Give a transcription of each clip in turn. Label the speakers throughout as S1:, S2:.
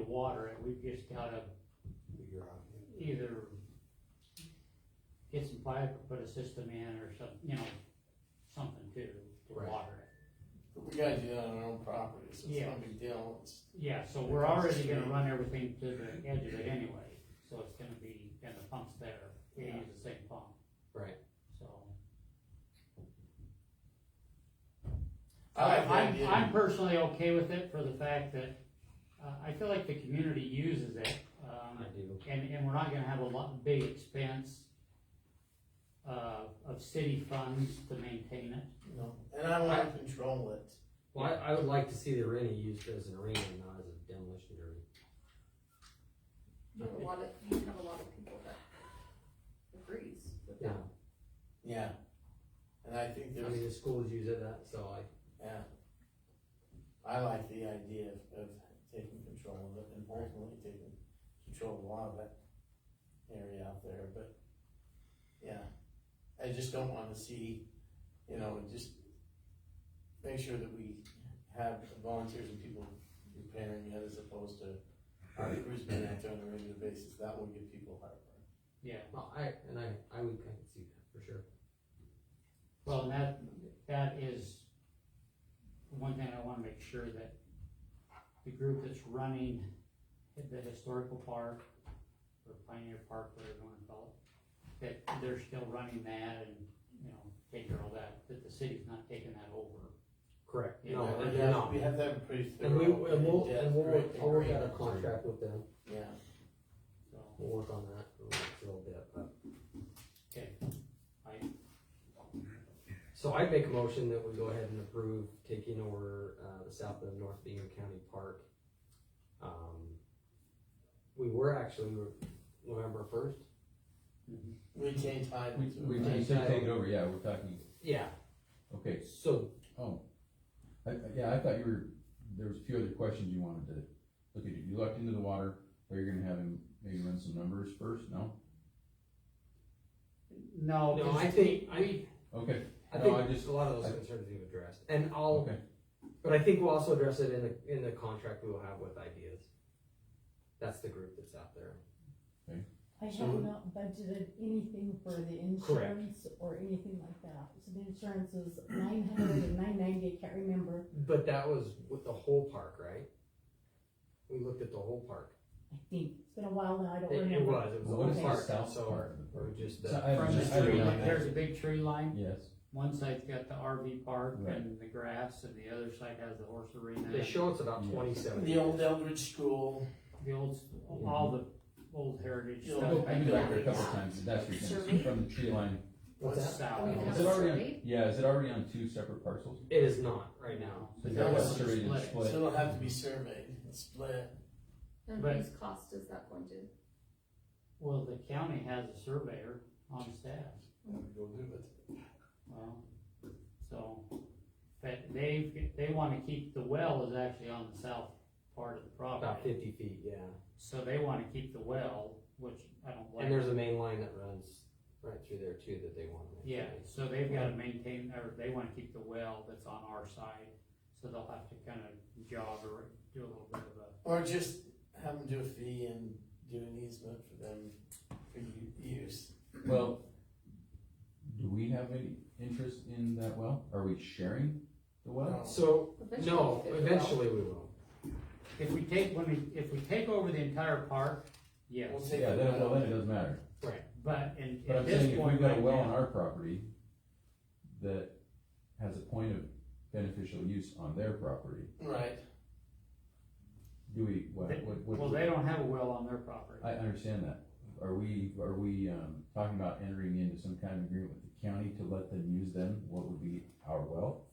S1: water it, we just gotta
S2: figure out. yeah.
S1: either get some pipe or put a system in or some, you know, something to, to
S3: Right.
S1: water it.
S3: We gotta do that on our own property, so it's
S1: Yeah.
S3: no big deal, it's,
S1: Yeah, so we're already gonna run everything to the edge of it anyway, so it's gonna be, and the pump's there, we use the same pump,
S4: Right.
S1: so.
S3: I like the
S1: I'm,
S3: idea.
S1: I'm personally okay with it for the fact that, uh, I feel like the community uses it, um,
S4: I do.
S1: and, and we're not gonna have a lot, big expense uh, of city funds to maintain it.
S3: you know, and I wanna control it.
S4: Well, I, I would like to see the arena used as an arena, and not as a demolition derby.
S5: You have a lot of, you have a lot of people that agrees with
S4: Yeah,
S5: that.
S3: Yeah. And I think
S4: I
S3: there's,
S4: mean, the schools use it, that, so I,
S3: yeah. I like the idea of, of taking control of it and ultimately taking control of a lot of that area out there, but, yeah. I just don't wanna see, you know, just make sure that we have volunteers and people repairing it as opposed to our crews being out there on a regular basis, that will give people heartburn.
S1: Yeah,
S4: well, I, and I, I would, I could see that, for sure.
S1: well, and that, that is one thing I wanna make sure that the group that's running the historical park, or Pioneer Park, whatever you wanna call it, that they're still running that and, you know, taking care of all that, that the city's not taking that over.
S4: Correct.
S1: Yeah,
S4: No,
S1: but
S4: and
S3: We have-
S4: no.
S3: We have that pretty thorough.
S4: And we, and we'll,
S3: in-depth
S4: and we'll, work- I'll work out a
S3: agreement.
S4: contract with them,
S3: Yeah,
S1: So,
S4: we'll work on that for a little bit, but.
S1: okay, I,
S4: So I'd make a motion that we go ahead and approve taking over, uh, the south of North Bingham County Park. Um, We were actually, we were November first? Mm-hmm.
S3: retain title.
S6: We,
S3: to it,
S6: we
S3: right?
S6: we should take it over, yeah, we're talking,
S4: Yeah,
S6: okay,
S4: so,
S6: oh. I, I- yeah, I thought you were, there was a few other questions you wanted to look at, you looked into the water, are you gonna have him maybe run some numbers first, no?
S1: no,
S4: no, I
S1: because
S4: think,
S1: we-
S4: I,
S6: Okay,
S4: I
S6: no, I
S4: think
S6: just,
S4: a lot of those
S6: I-
S4: concerns you've addressed, and I'll,
S6: okay,
S4: but I think we'll also address it in the, in the contract we'll have with ideas. That's the group that's out there.
S7: I have
S3: So-
S7: not budgeted anything for the
S4: Mm-hmm. Correct.
S7: insurance or anything like that. So the insurance is nine hundred and nine ninety, I can't remember.
S4: But that was with the whole park, right? We looked at the whole park.
S7: I think, it's been a while now, I don't
S4: It,
S7: remember.
S4: it was, it was the
S6: What
S4: whole
S6: is the
S4: park,
S6: south
S4: so,
S6: part of the
S4: or
S6: park?
S4: just
S6: So
S4: the.
S6: I-
S1: From the
S6: I
S1: tree,
S6: read
S1: line-
S6: that.
S1: there's a big tree line,
S6: yes,
S1: one side's got the RV park
S6: Right.
S1: and the grass, and the other side has the horse arena.
S4: They show it's about
S6: Yeah.
S4: twenty-seven.
S3: The old Eldridge School,
S1: The old, all the old heritage
S3: Yeah.
S1: stuff.
S6: I've
S1: back
S6: been
S1: there.
S6: back there a couple of times, that's your thing,
S5: Survey?
S6: from the tree line.
S4: What's
S3: What's
S4: that?
S1: South.
S4: Oh,
S5: We
S6: Is
S5: have
S6: it
S5: a
S6: already on,
S5: survey?
S6: yeah, is it already on two separate parcels?
S4: It is not right now.
S6: Is
S3: No,
S6: that
S3: it's
S6: surveyed and
S1: split.
S3: so
S6: split?
S3: it'll have to be surveyed and split.
S5: And
S1: But-
S5: whose cost is that going to?
S1: Well, the county has a surveyor on staff,
S3: Go do it.
S1: well, so, but they, they wanna keep, the well is actually on the south part of the
S4: About
S1: property.
S4: fifty feet, yeah.
S1: So they wanna keep the well, which I don't like.
S4: And there's a main line that runs right through there too that they want. to
S1: Yeah,
S4: maintain.
S1: so they've gotta maintain, or they wanna keep the well that's on our side, so they'll have to kinda jog or do a little bit of a,
S3: Or just have them do a fee and do an easement for them for u- use.
S6: Well, do we have any interest in that well? Are we sharing
S3: Um,
S6: the well?
S4: So,
S5: Eventually
S4: no,
S5: figure out.
S4: eventually we will.
S1: if we take, when we, if we take over the entire park, yes,
S3: We'll take
S6: Yeah,
S3: that
S6: then,
S3: out.
S6: well, then it doesn't matter.
S1: but in,
S6: But
S1: at
S6: I'm
S1: this
S6: saying if
S1: point
S6: we've got a
S1: right
S6: well
S1: now-
S6: on our property that has a point of beneficial use on their property,
S3: Right,
S6: do we, what,
S1: They-
S6: what? what-
S1: Well, they don't have a well on their property.
S6: I understand that. Are we, are we, um, talking about entering into some kind of agreement with the county to let them use them? What would be our well?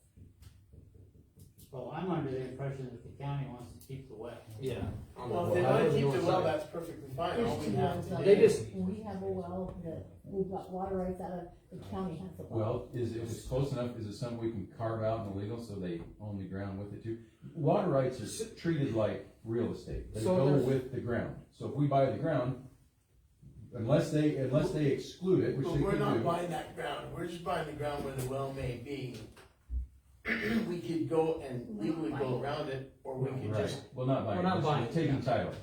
S1: Well, I'm under the impression that the county wants to keep the well.
S4: Yeah. on the
S3: well, if they
S4: well.
S3: wanna
S4: How does
S3: keep
S4: yours
S3: the well,
S4: look?
S3: that's perfectly fine, all
S7: There's
S3: we
S7: two
S3: have
S7: wells
S3: to
S7: out
S3: do.
S4: They
S7: there.
S4: just-
S7: We have a well that, we've got water rights out of, the county has a well.
S6: Well, is it, if it's close enough, is it something we can carve out and illegal so they own the ground with it too? Water rights are treated like real estate. They
S4: So
S6: go
S4: there's-
S6: with the ground. So if we buy the ground, unless they, unless they exclude it, which
S3: But
S6: they
S3: we're
S6: could
S3: not
S6: do.
S3: buying that ground, we're just buying the ground where the well may be. We could go and
S5: We're not
S3: legally
S5: buying
S3: go
S5: it.
S3: around it, or we could
S6: Right.
S3: just
S6: Well, not buying,
S4: We're not
S6: it.
S4: buying it,
S6: Just taking title.